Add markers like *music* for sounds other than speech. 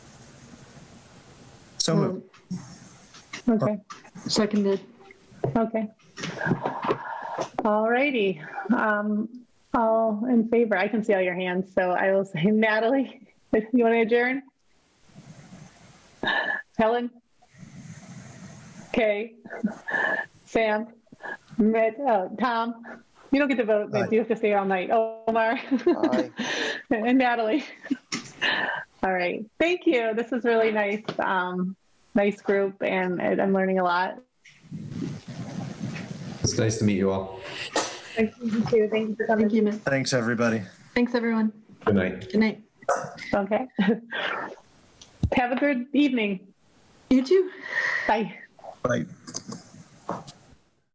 So moved. Okay, Seconded. okay. All righty. Um, all in favor, I can see all your hands, so I will say *laughs* Natalie, you want to adjourn? Helen? Kay? Sam? Mit, uh, Tom? You don't get to vote, but you have to stay all night. Omar? Aye. *laughs* And Natalie? *laughs* All right, thank you. This is really nice, um, nice group and I- I'm learning a lot. It's nice to meet you all. Thank you too. Thank you for coming. Thank you, Miss. Thanks, everybody. Thanks, everyone. Good night. Good night. Okay. *laughs* Have a good evening. You too. Bye. Bye.